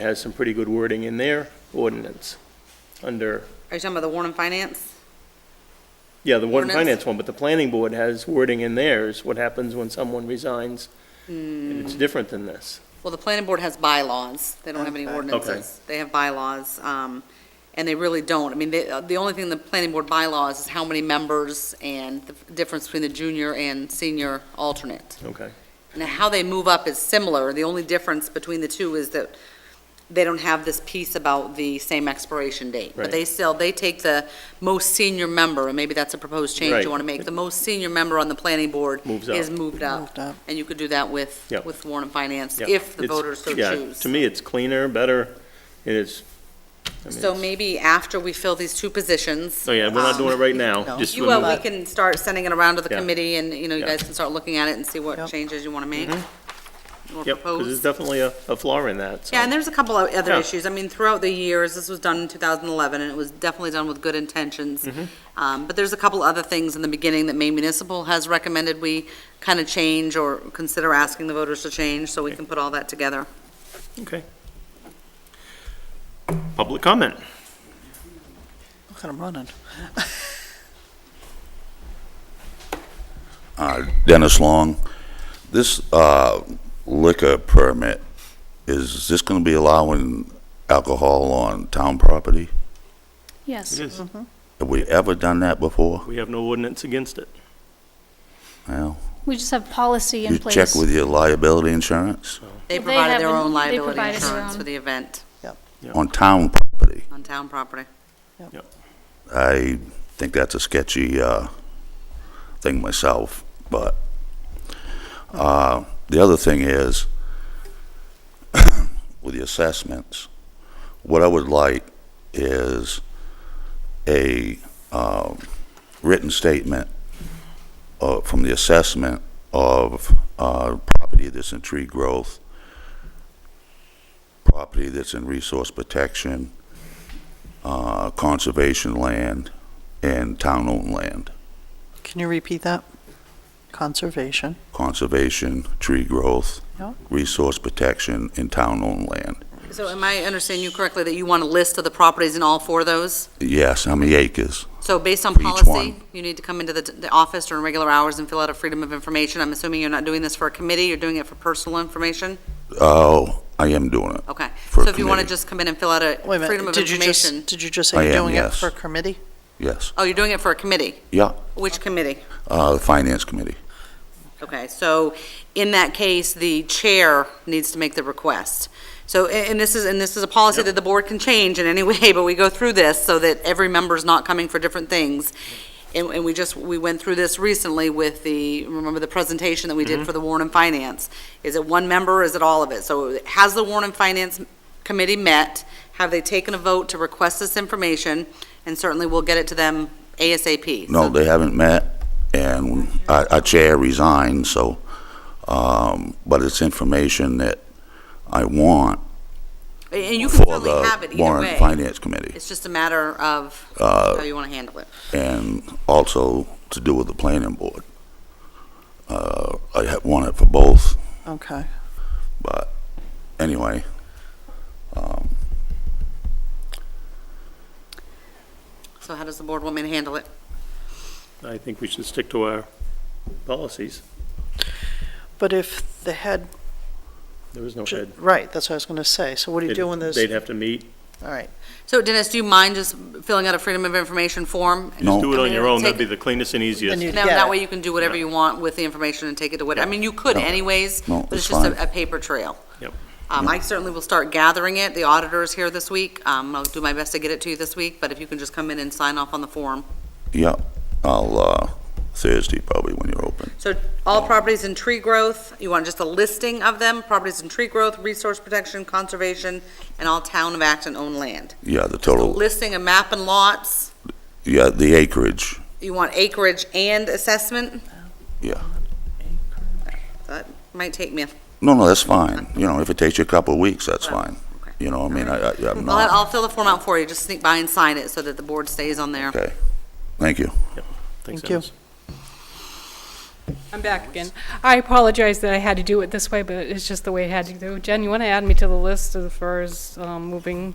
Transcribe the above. has some pretty good wording in their ordinance, under, Are you talking about the Warren Finance? yeah, the one Ordinance. finance one, but the planning board has wording in theirs, what happens when someone resigns. And Hmm. it's different than this. Well, the planning board has bylaws. They don't have any Okay. ordinances. They have bylaws, um, and they really don't. I mean, they, the only thing the planning board bylaws is how many members and the difference between the junior and senior alternate. Okay, And how they move up is similar. The only difference between the two is that they don't have this piece about the same expiration date. But Right. they still, they take the most senior member, and maybe that's a proposed change Right. you want to make. The most senior member on the planning board Moves up. is moved up. And you could do that with, Yep. with Warren and Finance, yeah. if the It's- voters so yeah, choose. To me, it's cleaner, better, it is. I mean, So it's- maybe after we fill these two positions. Oh, yeah, we're not um, doing it right now, just. You, when well, we- we can start sending it around to the Yeah. committee, and, you know, you Yeah. guys can start looking at it and see what changes you want to make. or Mm-hmm. Yep, because propose. there's definitely a, a flaw in that, so. Yeah, and there's a couple of other Yeah. issues. I mean, throughout the years, this was done in 2011, and it was definitely done with good intentions. Mm-hmm. Um, But there's a couple other things in the beginning that Maine Municipal has recommended we kind of change or consider asking the voters to change, so we can put all that together. Okay. Public comment. Look at him running. Uh, Dennis Long, this uh, liquor permit, is this going to be allowing alcohol on town property? It Yes, Mm-hmm. is. Have we ever done that before? We have no ordinance against it. Well, we just have policy in you place. check with your liability insurance They Well, they provided their haven't- own they liability provided their insurance own. for the event on town property. on town property. I think that's a sketchy uh, thing myself, but uh, the other thing is with the assessments, what I would like is a um, written statement uh, from the assessment of uh, property that's in tree growth, property that's in resource protection, uh, conservation land and town-owned land. Can you repeat that? Conservation. Conservation, tree growth, Yeah. resource protection, and town-owned land. So am I understanding you correctly that you want a list of the properties in all four of those? Yes, how many acres? So based on For each policy, one. you need to come into the, the office during regular hours and fill out a freedom of information. I'm assuming you're not doing this for a committee, you're doing it for personal information? Oh, I am doing it. Okay, For so a if you want to committee. just come in and fill out a Wait a freedom minute, of did you information. just, did you just I say you're am, doing it yes. for a committee? Yes. Oh, you're doing it for a committee? Yeah, Which committee? uh, the Finance Committee. Okay, so in that case, the chair needs to make the request. So, a- and this is, and this is a policy that the board can change in any way, but we go through this so that every member's not coming for different things. And, and we just, we went through this recently with the, remember the presentation that we did for the Warren and Finance? Is it one member, or is it all of it? So has the Warren and Finance Committee met? Have they taken a vote to request this information? And certainly we'll get it to them ASAP. No, So- they haven't met, and our our chair resigned, so, um, but it's information that I want And you can for certainly have the it either way. Warren Finance Committee, It's just a matter of Uh, how you want to handle it. and also to do with the Planning Board. Uh, I ha- want it for both. Okay. But anyway, So how does the board want me to handle it? I think we should stick to our policies. But if the head, There is no ju- head. right, that's what I was going to say. So what do you do when there's, They'd have to meet. all right. So Dennis, do you mind just filling out a Freedom of Information form? No. Do it on your own, that'd be Take- the cleanest and Then easiest. you- Now, Yeah. that way you can do whatever you want with the information and take it to what, I mean, you could No. anyways, No, but it's it's just a, fine. a paper trail. Yep. Um, I certainly will start gathering it. The auditor is here this week. Um, I'll do my best to get it to you this week, but if you can just come in and sign off on the form. yeah, I'll, uh, Thursday probably when you're open. So all properties in tree growth, you want just a listing of them, properties in tree growth, resource protection, conservation, and all town of Acton owned land. Yeah, the So total, listing of map and lots, yeah, the acreage, you want acreage and assessment? yeah. That might take me, a- No, no, that's fine. You know, if it takes you a couple of weeks, that's Well, fine. okay. You know, I mean, I, I- I'm I'll, I'll not, fill the form out for you, just sneak by and sign it so that the board stays on there. okay. Thank you. Thanks, Thank you. Dennis. I'm back again. I apologize that I had to do it this way, but it's just the way it had to go. Jen, you want to add me to the list as far as um, moving